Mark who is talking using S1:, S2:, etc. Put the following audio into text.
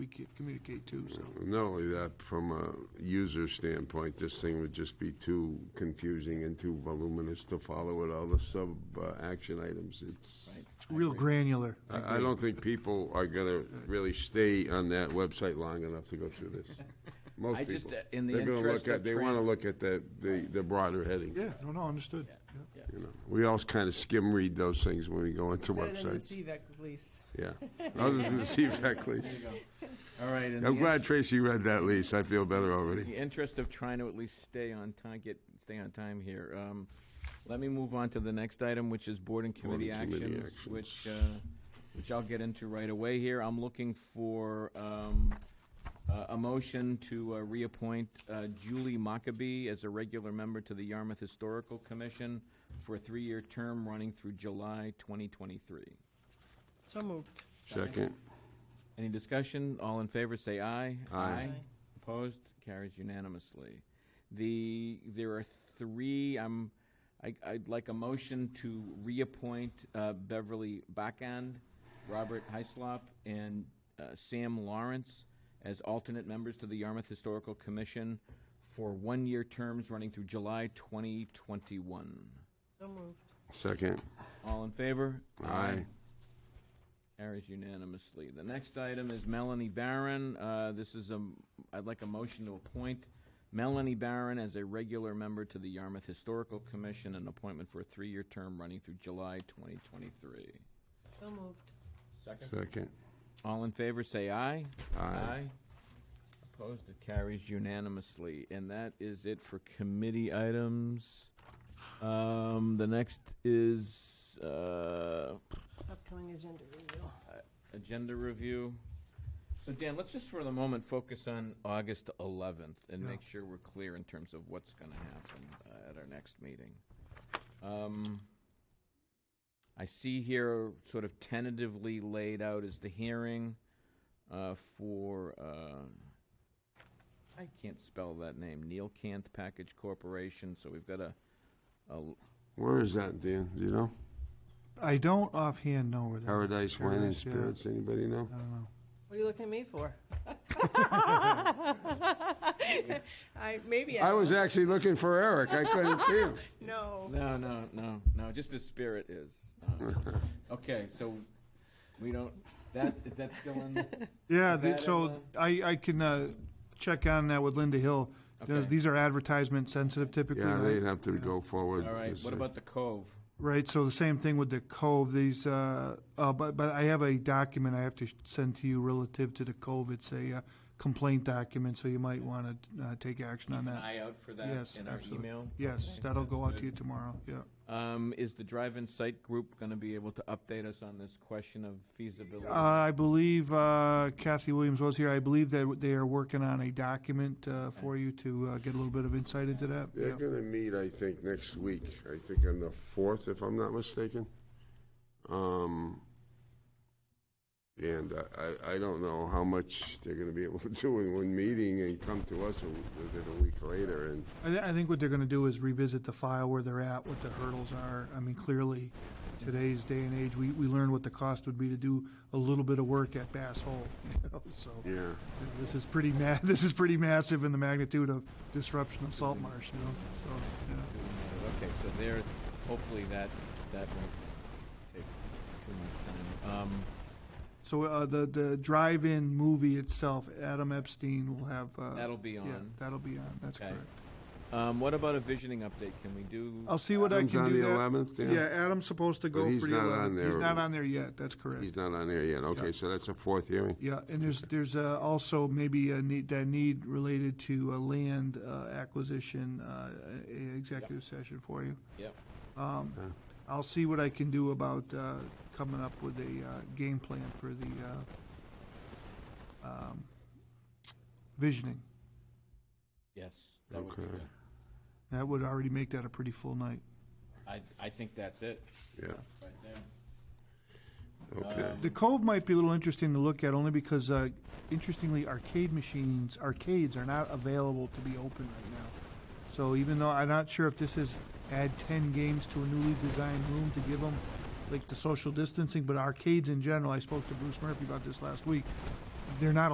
S1: communicate, communicate to, so.
S2: Not only that, from a user standpoint, this thing would just be too confusing and too voluminous to follow with all the sub-action items. It's,
S1: Real granular.
S2: I I don't think people are gonna really stay on that website long enough to go through this. Most
S3: I just,
S2: people.
S3: uh, in the
S2: They're gonna look
S3: interest
S2: at-
S3: of
S2: They wanna
S3: trans-
S2: look at the, the the broader heading.
S1: Yeah, no, no, understood. Yeah.
S2: you know. We all kind of skim read those things when we go into
S4: Better than the
S2: websites.
S4: CVAC lease.
S2: Yeah, other than the CFAC lease.
S3: All right. in
S2: I'm
S3: the
S2: glad Tracy read that lease. I feel better
S3: In
S2: already.
S3: the interest of trying to at least stay on time, get, stay on time here, um, let me move on to the next item, which is board and
S2: Board and
S3: committee
S2: committee
S3: actions,
S2: actions.
S3: which, uh, which I'll get into right away here. I'm looking for, um, uh, a motion to uh, reappoint uh, Julie Maccabee as a regular member to the Yarmouth Historical Commission for a three-year term running through July 2023.
S4: So moved.
S2: Second,
S3: Any discussion? All in favor, say aye.
S2: Aye. Aye.
S3: Opposed? Carries unanimously. The, there are three, I'm, I, I'd like a motion to reappoint uh, Beverly Backand, Robert Heislop, and uh, Sam Lawrence as alternate members to the Yarmouth Historical Commission for one-year terms running through July 2021.
S4: So moved.
S2: second,
S3: All in favor?
S2: aye.
S3: Carries unanimously. The next item is Melanie Barron. Uh, This is a, I'd like a motion to appoint Melanie Barron as a regular member to the Yarmouth Historical Commission, an appointment for a three-year term running through July 2023.
S4: So moved.
S2: Second,
S3: All in favor, say aye.
S2: Aye.
S3: Opposed, it carries unanimously. And that is it for committee items. Um, The next is uh,
S4: Upcoming agenda review.
S3: agenda review. So Dan, let's just for the moment focus on August 11th and
S1: Yeah.
S3: make sure we're clear in terms of what's going to happen uh, at our next meeting. Um, I see here sort of tentatively laid out is the hearing uh, for, uh, I can't spell that name, Neil Kant Package Corporation, so we've got a, a-
S2: where is that, Dan? Do you know?
S1: I don't offhand know where that is.
S2: Paradise Wine and
S1: Paradise, yeah.
S2: Spirits, anybody know?
S1: I don't know.
S4: What are you looking at me for? I, maybe I.
S2: I was actually looking for Eric, I couldn't see him.
S4: No.
S3: no, no, no, no, just the spirit is. uh, Okay, so we don't, that, is that still in?
S1: Yeah,
S3: Is
S1: the-
S3: that
S1: so
S3: in
S1: I, I can uh, check on that with Linda Hill. Those-
S3: Okay.
S1: These are advertisement sensitive typically,
S2: Yeah, they'd
S1: right?
S2: have to go forward.
S3: All right,
S2: to
S3: what
S2: say-
S3: about the Cove?
S1: Right, so the same thing with the Cove, these, uh, uh, but, but I have a document I have to send to you relative to the Cove. It's a uh, complaint document, so you might want to take action on
S3: Keep an
S1: that.
S3: eye out for that
S1: Yes,
S3: in our
S1: absolutely.
S3: email.
S1: Yes,
S3: Okay,
S1: that'll
S3: that's
S1: go out to
S3: good.
S1: you tomorrow, yeah.
S3: Um, Is the drive-in site group going to be able to update us on this question of feasibility?
S1: Uh, I believe uh, Kathy Williams was here. I believe that they are working on a document uh, for you to uh, get a little bit of insight into that.
S2: They're
S1: Yeah.
S2: gonna meet, I think, next week, I think on the fourth, if I'm not mistaken. Um, and I- I, I don't know how much they're gonna be able to do in one meeting and come to us a w- with it a week later and,
S1: I, thi- I think what they're going to do is revisit the file where they're at, what the hurdles are. I mean, clearly, today's day and age, we, we learned what the cost would be to do a little bit of work at Bass Hole. You know? So
S2: yeah.
S1: this is pretty ma- this is pretty massive in the magnitude of disruption of salt marsh. You know, so yeah.
S3: Okay, so there, hopefully that, that won't take too much time. Um,
S1: So uh, the the drive-in movie itself, Adam Epstein will have. Uh,
S3: That'll be
S1: yeah,
S3: on.
S1: that'll be on. That's
S3: Okay.
S1: correct.
S3: um, What about a visioning update? Can we do?
S1: I'll see what I
S2: Adam's
S1: can
S2: on
S1: do.
S2: the
S1: that-
S2: 11th, yeah.
S1: Adam's supposed to go
S2: he's
S1: for the
S2: not
S1: 11th.
S2: on there.
S1: He's not on there yet. That's correct.
S2: He's not on there yet. Okay, so that's a fourth hearing.
S1: yeah, and there's there's uh, also maybe a need that need related to a land uh, acquisition uh, a- a executive session for you.
S3: Yep.
S1: Um,
S2: Okay.
S1: I'll see what I can do about uh, coming up with a uh, game plan for the uh, um, visioning.
S3: Yes, that would be
S2: Okay.
S3: good.
S1: That would already make that a pretty full night.
S3: I, I think that's it,
S2: Yeah,
S3: right there.
S2: okay.
S1: The Cove might be a little interesting to look at, only because, uh, interestingly, arcade machines, arcades are not available to be open right now. So even though I'm not sure if this is add ten games to a newly designed room to give them like the social distancing, but arcades in general, I spoke to Bruce Murphy about this last week. They're not